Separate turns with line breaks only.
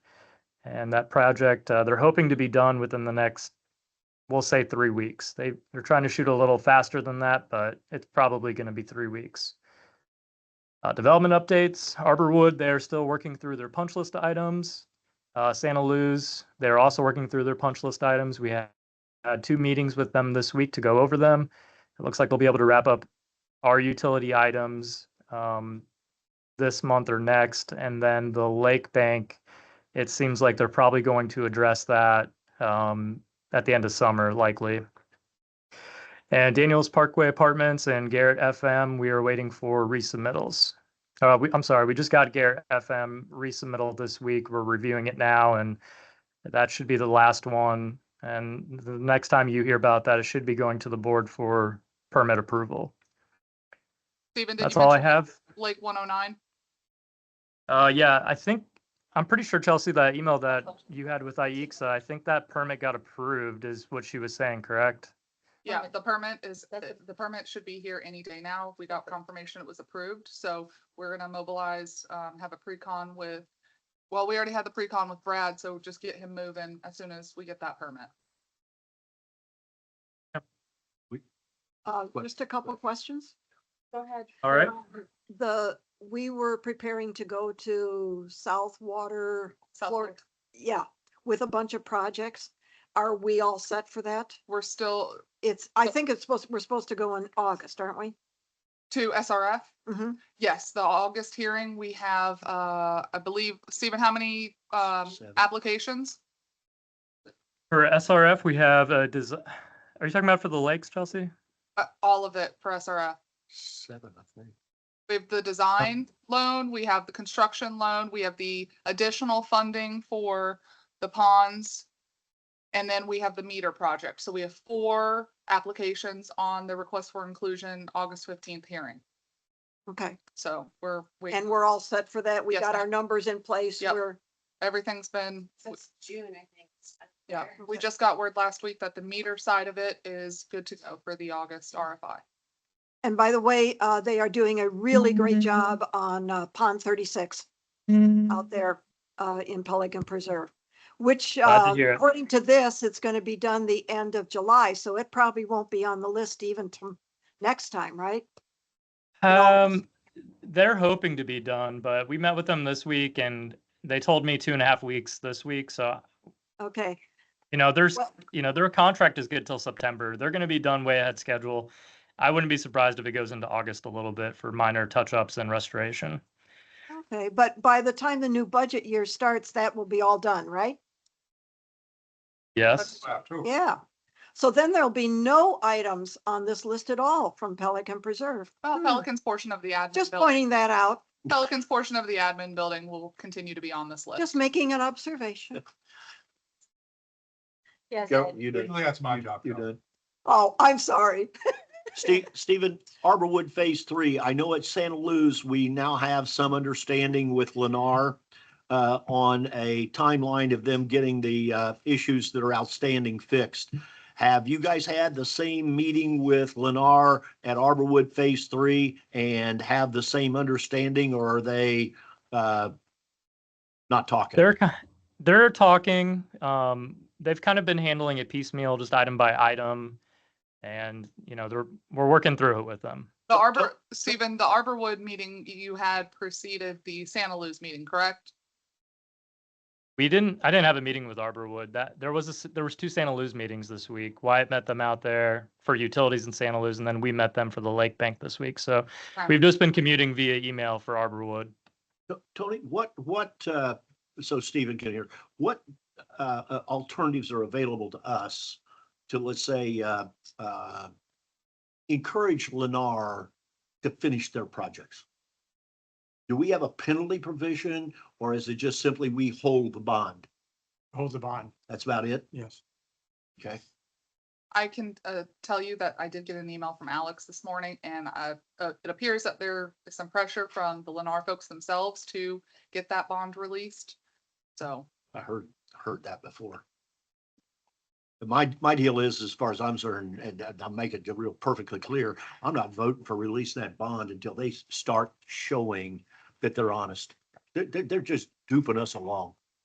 And that project, uh, they're hoping to be done within the next, we'll say three weeks. They, they're trying to shoot a little faster than that, but it's probably going to be three weeks. Uh, development updates, Arborwood, they're still working through their punch list items. Uh, Santa Luz, they're also working through their punch list items. We had, had two meetings with them this week to go over them. It looks like they'll be able to wrap up our utility items, um, this month or next. And then the Lake Bank, it seems like they're probably going to address that um, at the end of summer, likely. And Daniels Parkway Apartments and Garrett FM, we are waiting for resubmittals. Uh, we, I'm sorry, we just got Garrett FM resubmittal this week. We're reviewing it now, and that should be the last one. And the next time you hear about that, it should be going to the board for permit approval.
Stephen, did
That's
you
all I
mention
have.
Lake 109?
Uh, yeah, I think, I'm pretty sure Chelsea, that email that you had with IEXA, I think that permit got approved is what she was saying, correct?
Yeah,
Permit.
the permit is,
That's it.
the permit should be here any day now. We got confirmation it was approved, so we're gonna mobilize, um, have a pre-con with, well, we already had the pre-con with Brad, so just get him moving as soon as we get that permit.
Uh,
What-
just a couple of questions.
Go ahead.
All right.
The, we were preparing to go to South Water,
South
Flor-
Lake.
yeah, with a bunch of projects. Are we all set for that?
We're still
It's, I think it's supposed, we're supposed to go in August, aren't we?
to SRF.
Mhm.
Yes, the August hearing, we have, uh, I believe, Stephen, how many, um,
Seven.
applications?
For SRF, we have a des- are you talking about for the lakes, Chelsea?
Uh, all of it for SRF.
Seven, I think.
We have the design loan, we have the construction loan, we have the additional funding for the ponds. And then we have the meter project. So we have four applications on the request for inclusion, August fifteenth hearing.
Okay,
So we're, we,
and we're all set for that. We
Yes,
got
ma'am.
our numbers in place.
Yep.
We're,
everything's been,
Since June, I think. it's up
yeah,
there.
we just got word last week that the meter side of it is good to go for the August RFI.
and by the way, uh, they are doing a really great job on uh, Pond thirty-six out there, uh, in Pelican Preserve, which,
Glad to
uh,
hear it.
according to this, it's going to be done the end of July, so it probably won't be on the list even to next time, right? No.
Um, they're hoping to be done, but we met with them this week and they told me two and a half weeks this week, so
Okay,
You know, there's,
Well-
you know, their contract is good till September. They're going to be done way ahead schedule. I wouldn't be surprised if it goes into August a little bit for minor touch-ups and restoration.
okay, but by the time the new budget year starts, that will be all done, right?
Yes.
Yeah. So then there'll be no items on this list at all from Pelican Preserve.
Well,
Hmm.
Pelican's portion of the admin.
Just
building-
pointing that out,
Pelican's portion of the admin building will continue to be on this list.
just making an observation.
Yes.
Go,
it-
you did.
Usually that's my job.
You
though.
did.
Oh, I'm sorry.
Steve, Stephen, Arborwood Phase Three, I know at Santa Luz, we now have some understanding with Lennar uh, on a timeline of them getting the uh, issues that are outstanding fixed. Have you guys had the same meeting with Lennar at Arborwood Phase Three and have the same understanding or are they uh, not talking?
They're, ki- they're talking, um, they've kind of been handling it piecemeal, just item by item. And, you know, they're, we're working through it with them.
The
So-
Arbor, Stephen, the Arborwood meeting you had preceded the Santa Luz meeting, correct?
We didn't, I didn't have a meeting with Arborwood. That, there was a, s- there was two Santa Luz meetings this week. Wyatt met them out there for utilities in Santa Luz, and then we met them for the Lake Bank this week. So
Right.
we've just been commuting via email for Arborwood.
To- Tony, what, what, uh, so Stephen can hear, what, uh, uh, alternatives are available to us to, let's say, uh, uh, encourage Lennar to finish their projects? Do we have a penalty provision or is it just simply we hold the bond?
Hold the bond,
That's about it?
yes.
Okay.
I can uh, tell you that I did get an email from Alex this morning and uh, uh, it appears that there is some pressure from the Lennar folks themselves to get that bond released. So,
I heard, heard that before. But My, my deal is, as far as I'm concerned, and I- I'll make it real perfectly clear, I'm not voting for releasing that bond until they s- start showing that they're honest. They're, they're, they're just duping us along.